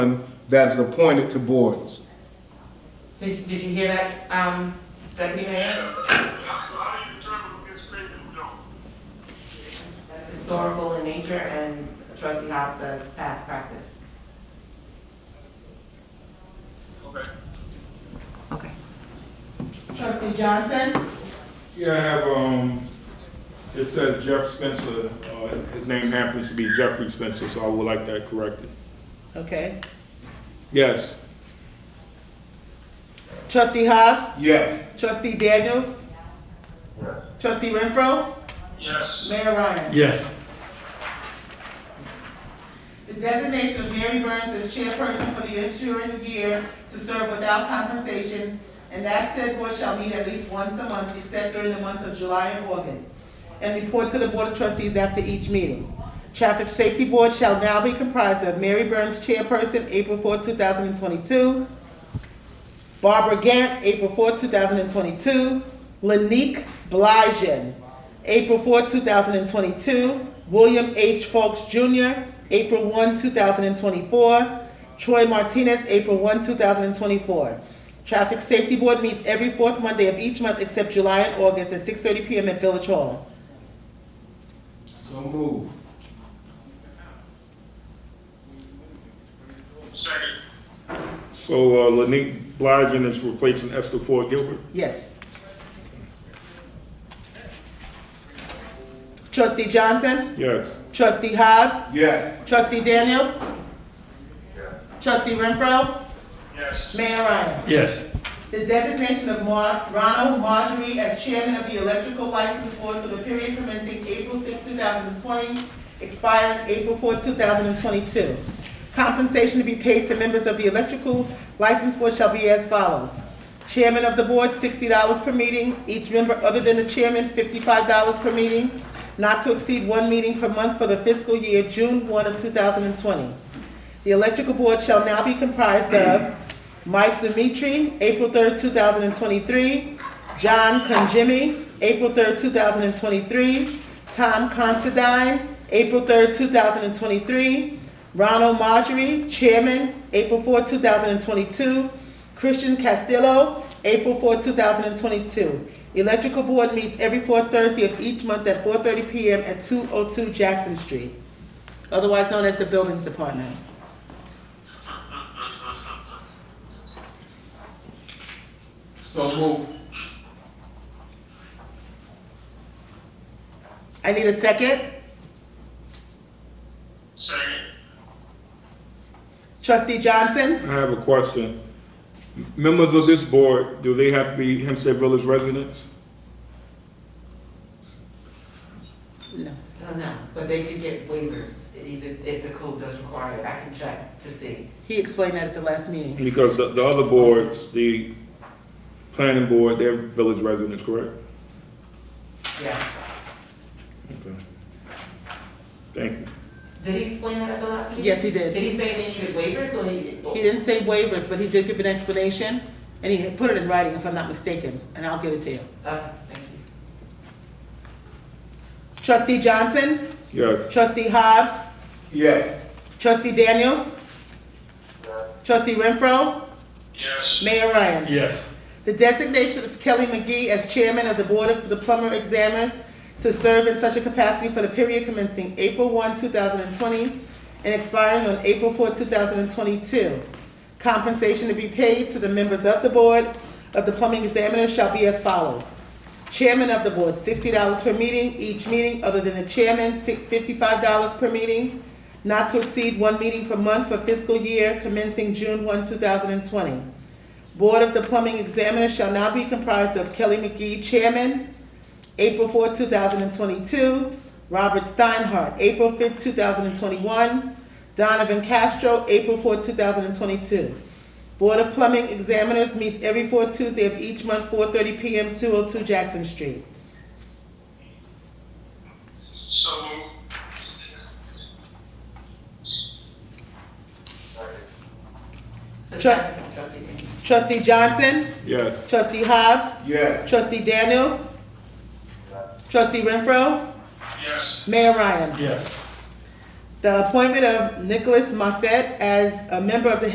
that is appointed to boards. Did, did you hear that, um, that we had? How do you determine who gets paid and who don't? That's historical in nature and trustee Hobbs says past practice. Okay. Okay. Trustee Johnson? Yeah, I have, um, it says Jeff Spencer, uh, his name happens to be Jeffrey Spencer, so I would like that corrected. Okay. Yes, Trustee Hobbs? Yes, Trustee Daniels? Trustee Renfro? Yes. Mayor Ryan? Yes. The designation of Mary Burns as chairperson for the ensuing year to serve without compensation, and that said board shall meet at least once a month, except during the months of July and August, and report to the Board of Trustees after each meeting. Traffic Safety Board shall now be comprised of Mary Burns, chairperson, April 4, 2022, Barbara Gant, April 4, 2022. Lanique Blijen, April 4, 2022. William H. Folks Jr., April 1, 2024. Troy Martinez, April 1, 2024. Traffic Safety Board meets every fourth Monday of each month except July and August at 6:30 PM at Village Hall. so move. Second. so, uh, Lanique Bligent is replacing Esther Ford Gilbert. Yes. Trustee Johnson? Yes, Trustee Hobbs? Yes, Trustee Daniels? Trustee Renfro? Yes. Mayor Ryan? Yes. The designation of Mar- Ronald Marjorie as chairman of the Electrical License Board for the period commencing April 6, 2020, expiring April 4, 2022. Compensation to be paid to members of the Electrical License Board shall be as follows. Chairman of the board, $60 per meeting. Each member other than the chairman, $55 per meeting, not to exceed one meeting per month for the fiscal year June 1 of 2020. The electrical board shall now be comprised of Mike Dimitri, April 3rd, 2023, John Conjimmy, April 3rd, 2023, Tom Considine, April 3rd, 2023, Ronald Marjorie, Chairman, April 4th, 2022, Christian Castillo, April 4th, 2022. Electrical board meets every fourth Thursday of each month at 4:30 PM at 202 Jackson Street, otherwise known as the Buildings Department. so move. I need a second. Second. Trustee Johnson? I have a question. Members of this board, do they have to be Hempstead Village residents? No. No, no, but they could get waivers even if the code does require it. I can check to see. He explained that at the last meeting. Because the, the other boards, the planning board, they're village residents, correct? Yes. Okay. Thank you. Did he explain that at the last meeting? Yes, he did. Did he say they needed waivers or he? He didn't say waivers, but he did give an explanation, and he had put it in writing, if I'm not mistaken, and I'll give it to you. Okay, thank you. Trustee Johnson? Yes. Trustee Hobbs? Yes, Trustee Daniels? Trustee Renfro? Yes. Mayor Ryan? Yes. The designation of Kelly McGee as chairman of the Board of the Plumber Examiners to serve in such a capacity for the period commencing April 1, 2020, and expiring on April 4, 2022. Compensation to be paid to the members of the Board of the Plumbing Examiners shall be as follows. Chairman of the Board, $60 per meeting, each meeting other than the chairman, si- $55 per meeting, not to exceed one meeting per month for fiscal year commencing June 1, 2020. Board of the Plumbing Examiner shall now be comprised of Kelly McGee, Chairman, April 4, 2022, Robert Steinhardt, April 5, 2021, Donovan Castro, April 4, 2022. Board of Plumbing Examiners meets every fourth Tuesday of each month, 4:30 PM, 202 Jackson Street. So move. Tra- Trustee Daniels. Trustee Johnson, Yes. Trustee Hobbs, yes, Trustee Daniels, Trustee Renfro, Yes. Mayor Ryan. Yes. The appointment of Nicholas Moffett as a member of the